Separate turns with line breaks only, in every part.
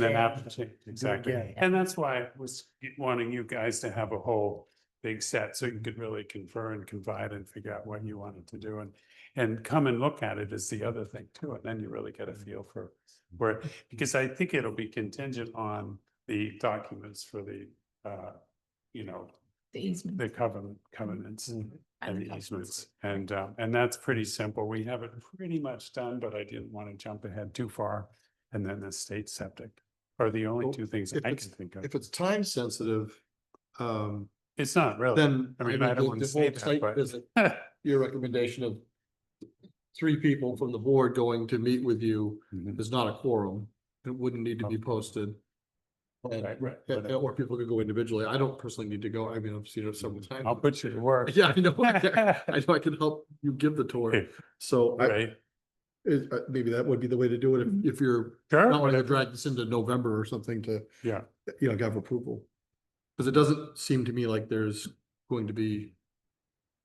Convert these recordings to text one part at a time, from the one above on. Then
Yeah.
applicant, exactly.
again.
And that's why I was wanting you guys to have a whole big set so you could really confer and confide and figure out what you wanted to do and and come and look at it is the other thing too. And then you really get a feel for where, because I think it'll be contingent on the documents for the uh, you know,
The easement.
the covenant covenants
and
and
the
the
covenants.
easements. And um, and that's pretty simple. We have it pretty much done, but I didn't want to jump ahead too far. And then the state septic are the only
Well,
two things
if
I
it's-
can think of.
If it's time sensitive, um,
It's not really.
then.
Oh, I mean, I don't
the-
wanna
the
say
whole
that,
site
but-
visit, Your recommendation of three people from the board going to meet with you
Mhm.
is not a quorum. It wouldn't need to be posted. And-
Oh, Right, right,
and-
but
Or people could go individually. I don't personally need to go. I mean, I've seen it several times.
Mm, Mm-hmm. I'll put you to work.
Yeah, I know. I know I can help you give the tour. So I,
Right, Mm-hmm.
it- uh, maybe that would be the way to do it if, if you're not
sure,
wanting to drag this into November or something to.
Yeah.
You know, have approval. Cause it doesn't seem to me like there's going to be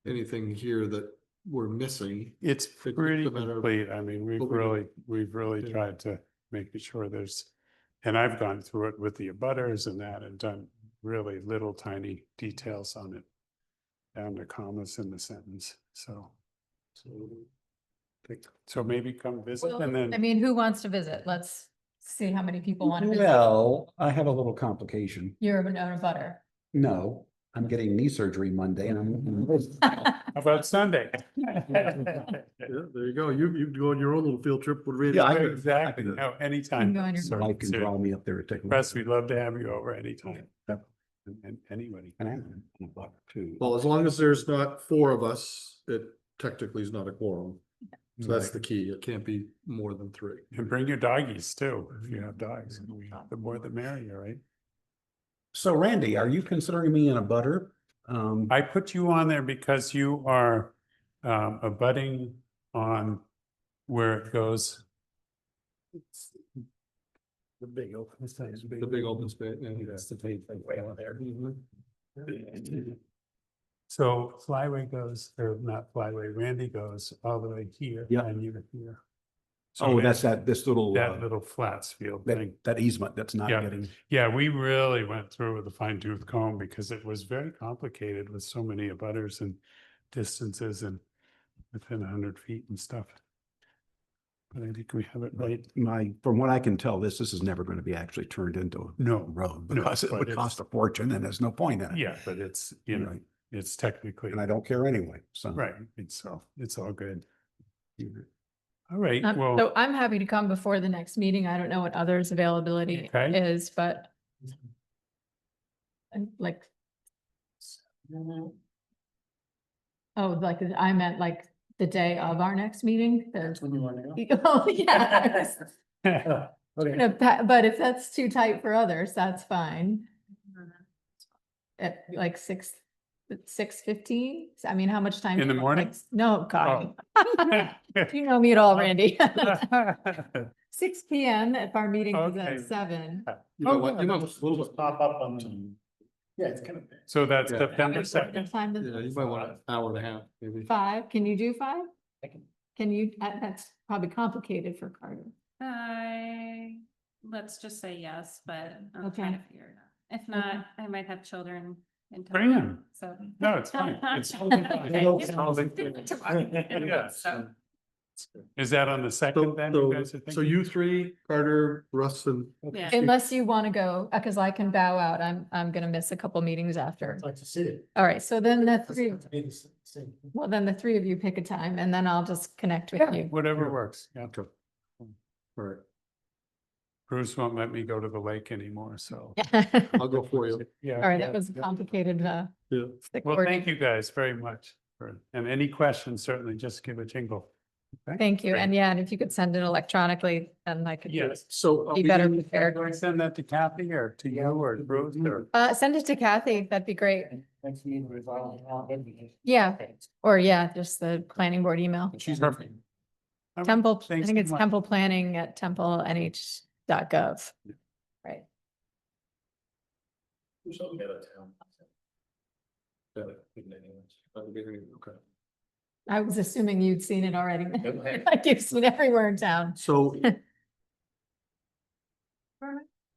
anything here that we're missing.
it's
just a
pretty
matter of
complete. I mean, we've
what we do.
really, we've really
Yeah.
tried to make sure there's. And I've gone through it with the abutters and that and done really little tiny details on it. Down to commas in the sentence, so. So maybe come visit
Well,
and
I
then,
mean, who wants to visit? Let's see how many people want to visit.
Well, I have a little complication.
You're an owner butter.
No, I'm getting knee surgery Monday and I'm.
how about Sunday?
Yeah, there you go. You, you go on your own little field trip. with Randy.
Yeah, I-
Exactly,
can-
no, anytime.
go on your-
Sorry,
Life can
seriously.
draw me up there to take. a look.
Russ, we'd love to have you over anytime.
Yep.
And- And anybody.
And I'm a buck too.
Well, as long as there's not four of us, it technically is not a quorum. So that's the key. It can't be more than three.
And bring your doggies too, if you have dogs. The more the merrier, right?
So Randy, are you considering me in a butter? Um,
I put you on there because you are um abutting on where it goes.
The big open.
The big open space. yeah.
the big thing way out there.
So Flyway goes, or not Flyway, Randy goes all the way here.
Yeah.
And you're here. So
Oh, that's that, this little,
That
uh,
little flats field
that,
thing.
that easement that's not
Yeah.
getting,
Yeah, we really went through with a fine tooth comb because it was very complicated with so many abutters and distances and within a hundred feet and stuff. But I think we have it right.
my, from what I can tell, this, this is never going to be actually turned into a
No,
road
No,
because it
but
would
it's-
cost a fortune and there's no point in it.
yeah, but it's, you know,
Right.
it's technically,
And I don't care anyway, so.
right, it's all, it's all good. All right,
Um,
well,
So I'm happy to come before the next meeting. I don't know what others' availability
Okay.
is, but and like oh, like I meant like the day of our next meeting. That's when you want to go. Oh, yeah. I was gonna pa- But if that's too tight for others, that's fine. At like six, six fifteen? I mean, how much time?
In
do
the
you want? Like,
morning? Oh.
s- No, God. You know me at all, Randy. Six P M if our meeting is
Okay.
at seven.
You know
Oh,
what?
yeah,
You might
that's-
little bit-
Pop up on the. Yeah, it's kind of.
So that's
Yeah.
September
Is that the
second,
time
Yeah, you
that-
might want an hour and a half, maybe.
Five, can you do five?
I can-
Can you, that- that's probably complicated for Carter.
I, let's just say yes, but I'm trying
Okay.
to figure it out. If not, I might have children in
Bring
town,
'em.
so.
No, it's fine. It's totally fine.
Okay.
It's totally fine. Yeah.
So,
is that on the
So,
second then you guys
so,
are thinking?
so you three, Carter, Russ and.
Yeah.
Unless you want to go, because I can bow out. I'm, I'm gonna miss a couple meetings after.
Like to see it.
All right, so then the three,
Be the s- same.
well, then the three of you pick a time and then I'll just connect with you.
Whatever works, yeah.
Okay. All right,
Bruce won't let me go to the lake anymore, so.
I'll go for you.
Yeah.
All right, that
yeah,
was a
yeah.
complicated, uh.
Yeah.
stick
Well,
word.
thank you guys very much. for- And any questions, certainly just give a jingle.
Thank you.
Great.
And yeah, and if you could send it electronically, then I could. do it.
Yes.
So. uh,
Be
we
better
do-
prepared.
Do I send that to Kathy or to you or Bruce or?
Uh, send it to Kathy. That'd be great.
Next meeting, we're following around, then we can-
Yeah, or yeah, just the planning board email.
She's
perfect. All right,
Temple, I
thanks
think
so
it's
much.
temple planning at templenh.gov. Right.
Who's up there at town?
Yeah,
Oh,
that'd be great, Okay.
I was assuming you'd seen it already.
Okay.
Like you've seen everywhere in town.
So